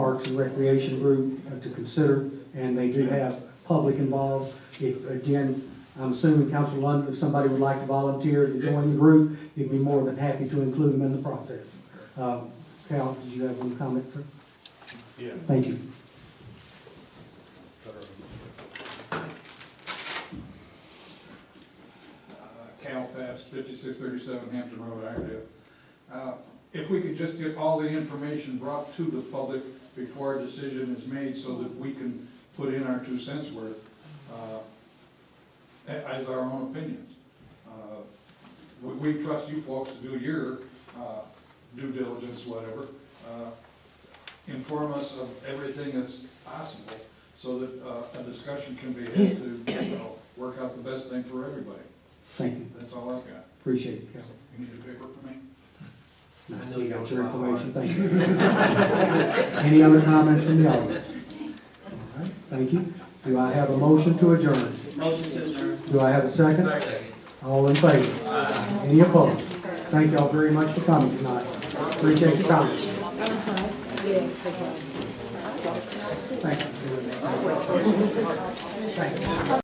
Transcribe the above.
Parks and Recreation Group uh, to consider, and they do have public involved. If, again, I'm assuming Council London, if somebody would like to volunteer to join the group, you'd be more than happy to include them in the process. Uh, Cal, did you have one comment, sir? Yeah. Thank you. uh, Cal Pass, fifty-six thirty-seven Hampton Road, Iredale. Uh, If we could just get all the information brought to the public before a decision is made so that we can put in our two cents worth, uh, a- as our own opinions. Uh, We, we trust you folks to do your, uh, due diligence, whatever. Uh, Inform us of everything that's possible so that, uh, a discussion can be had to, you know, work out the best thing for everybody. Thank you. That's all I've got. Appreciate it, Cal. You need a paper for me? I know You you got know your my heart. information, thank you. Any other comments from the audience? All right, Thank you. Do I have a motion to adjourn? Motion to adjourn. Do I have a second? All in favor? Any opposed? Thank y'all very much for coming tonight. Appreciate your comments. Thank you. Thank you.